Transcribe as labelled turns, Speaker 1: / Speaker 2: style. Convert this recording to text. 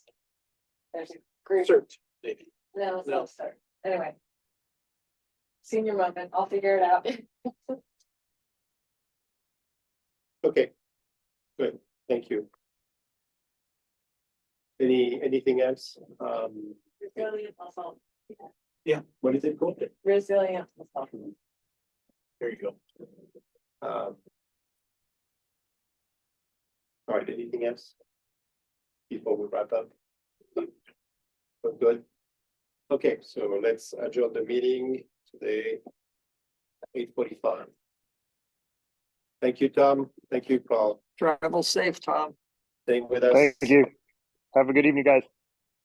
Speaker 1: There's a group,
Speaker 2: Search, maybe.
Speaker 1: no, it's
Speaker 2: No.
Speaker 1: not start, anyway. Senior moment, I'll figure it out.
Speaker 2: Okay. Good, thank you. Any, anything else? Um,
Speaker 1: Resilient muscle,
Speaker 2: yeah, what is it called?
Speaker 1: resilient muscle.
Speaker 2: There you go. Um, All right, anything else? Before we wrap up? We're good? Okay, so let's adjourn the meeting today. Eight forty-five. Thank you, Tom. Thank you, Paul.
Speaker 3: Travel safe, Tom.
Speaker 2: Staying with us.
Speaker 4: Thank you. Have a good evening, guys.